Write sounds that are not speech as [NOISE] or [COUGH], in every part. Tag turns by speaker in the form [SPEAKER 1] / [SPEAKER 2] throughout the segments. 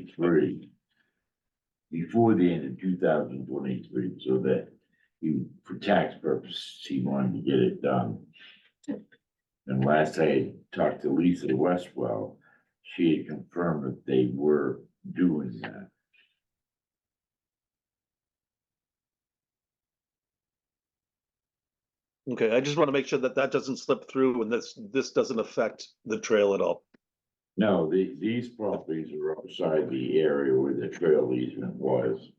[SPEAKER 1] twenty-three. Before the end of two thousand twenty-three, so that he, for tax purposes, he wanted to get it done. And last I talked to Lisa Westwell, she had confirmed that they were doing that.
[SPEAKER 2] Okay, I just want to make sure that that doesn't slip through and this, this doesn't affect the trail at all.
[SPEAKER 1] No, the, these properties are outside the area where the trail easement was.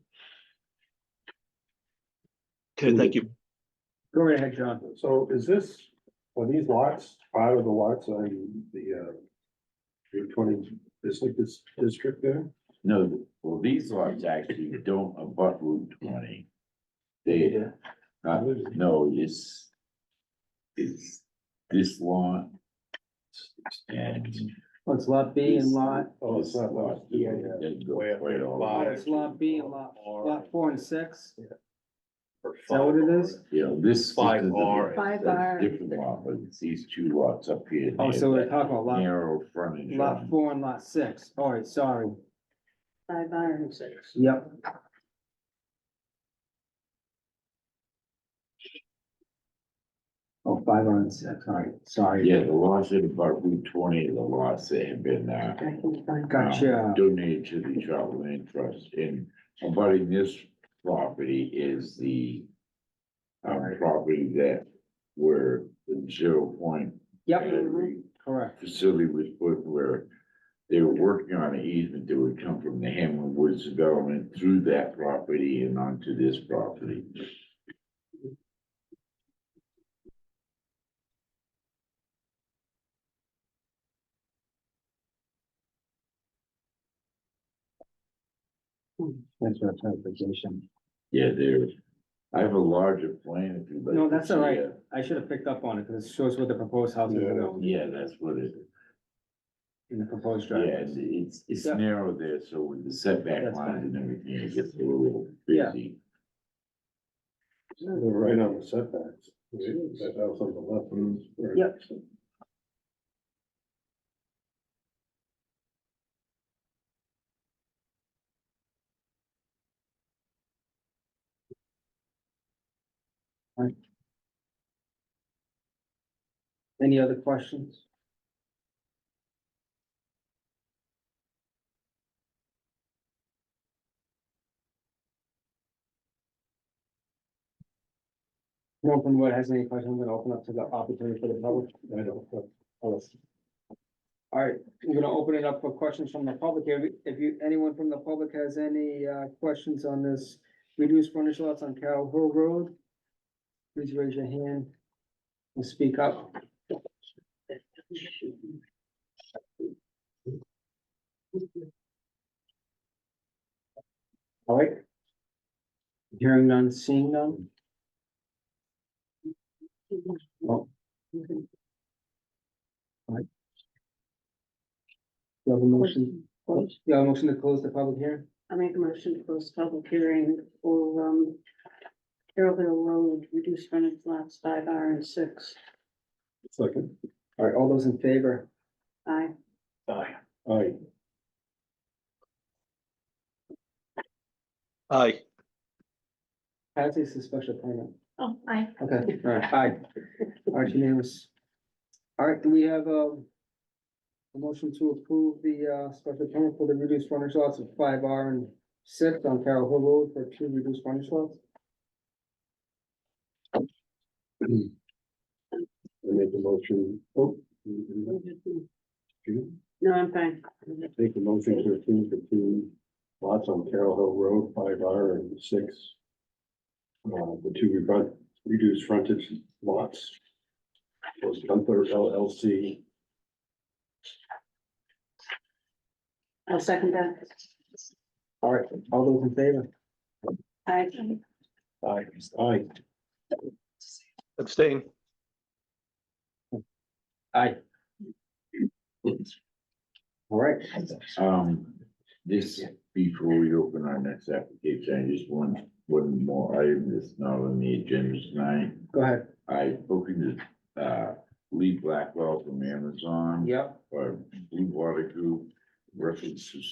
[SPEAKER 2] Okay, thank you.
[SPEAKER 3] Go right ahead, John. So is this, are these lots, part of the lots on the uh. Route twenty business dis- district there?
[SPEAKER 1] No, well, these lots actually don't abut Route twenty. They, uh, no, it's. It's this lot. And.
[SPEAKER 4] Well, it's lot B and
[SPEAKER 1] this-
[SPEAKER 4] lot,
[SPEAKER 3] Oh, it's
[SPEAKER 1] this
[SPEAKER 3] not lot, yeah, yeah.
[SPEAKER 1] They go
[SPEAKER 3] Way up
[SPEAKER 1] right
[SPEAKER 3] there,
[SPEAKER 1] all
[SPEAKER 3] lot.
[SPEAKER 1] the way.
[SPEAKER 4] it's lot B and lot, lot four and six.
[SPEAKER 3] Is
[SPEAKER 4] that what it is?
[SPEAKER 1] You know, this.
[SPEAKER 3] Five
[SPEAKER 1] this is a-
[SPEAKER 3] R.
[SPEAKER 5] Five
[SPEAKER 1] that's a
[SPEAKER 5] R.
[SPEAKER 1] Different lot, but it's these two lots up here.
[SPEAKER 4] Oh,
[SPEAKER 1] they
[SPEAKER 4] so we're
[SPEAKER 1] have
[SPEAKER 4] talking about
[SPEAKER 1] that
[SPEAKER 4] lot,
[SPEAKER 1] Narrow frontage.
[SPEAKER 4] lot
[SPEAKER 1] on-
[SPEAKER 4] four and lot six. All right, sorry.
[SPEAKER 5] Five iron six.
[SPEAKER 4] Yep. Oh, five on six, all right, sorry.
[SPEAKER 1] Yeah, the lots that abut Route twenty, are the lots that have been, uh.
[SPEAKER 5] I can find.
[SPEAKER 4] Gotcha.
[SPEAKER 1] um, Donated to the Charter Land Trust and abutting this property is the. Um,
[SPEAKER 4] Alright.
[SPEAKER 1] property that where the zero point
[SPEAKER 4] Yep,
[SPEAKER 1] battery
[SPEAKER 4] correct.
[SPEAKER 1] facility was put where. They were working on an easement that would come from the Hamlin Woods development through that property and onto this property.
[SPEAKER 4] That's our clarification.
[SPEAKER 1] Yeah, there, I have a larger plan if you'd like.
[SPEAKER 4] No,
[SPEAKER 1] to
[SPEAKER 4] that's all
[SPEAKER 1] see
[SPEAKER 4] right.
[SPEAKER 1] it.
[SPEAKER 4] I should have picked up on it because it shows what the proposed house is going
[SPEAKER 1] Yeah, that's what it.
[SPEAKER 4] in the proposed
[SPEAKER 1] Yeah,
[SPEAKER 4] driveway.
[SPEAKER 1] it's, it's, it's
[SPEAKER 4] Yeah.
[SPEAKER 1] narrow there, so with the setback
[SPEAKER 4] That's
[SPEAKER 1] lines
[SPEAKER 4] fine.
[SPEAKER 1] and everything, it gets a little
[SPEAKER 4] Yeah.
[SPEAKER 1] busy.
[SPEAKER 3] They're right on the setbacks. That house on the left. or-
[SPEAKER 4] Yep. Any other questions? No one from what has any questions, I'm gonna open up to the opportunity for the public. I don't. All right, I'm gonna open it up for questions from the public here. If you, anyone from the public has any uh questions on this reduced frontage lots on Carroll Hill Road, please raise your hand and speak up. All right. Hearing none, seeing none. Do you have a motion? Do
[SPEAKER 5] I
[SPEAKER 4] you have a motion to close the public hearing?
[SPEAKER 5] make a motion to close public hearing for, um, Carroll Hill Road, reduced frontage lots, five R and six.
[SPEAKER 3] Second.
[SPEAKER 4] All right, all those in favor?
[SPEAKER 5] Aye.
[SPEAKER 3] Aye. Aye. [CLEARS THROAT]
[SPEAKER 2] Aye.
[SPEAKER 4] Patsy's a special permit.
[SPEAKER 5] Oh, aye.
[SPEAKER 4] Okay, all right, aye. All right, unanimous. All right, do we have um, a motion to approve the uh special permit for the reduced frontage lots of five R and six on Carroll Hill Road for two reduced frontage lots?
[SPEAKER 3] I make a motion, oh. you- you- you
[SPEAKER 5] No, I'm fine.
[SPEAKER 3] Make a motion to approve the two lots on Carroll Hill Road, five R and six. Uh, the two redu- reduced frontage lots. Was Gunther LLC.
[SPEAKER 5] I'll second that.
[SPEAKER 4] All right, all those in favor?
[SPEAKER 5] Aye.
[SPEAKER 3] Aye. Aye.
[SPEAKER 2] Abstain.
[SPEAKER 4] Aye. All right,
[SPEAKER 1] Um, this, before we open our next application, I just want one more item that's not on the agenda tonight.
[SPEAKER 4] go ahead.
[SPEAKER 1] I spoken to, uh, Lee Blackwell from Amazon.
[SPEAKER 4] Yep.
[SPEAKER 1] Or Blue Water Group, references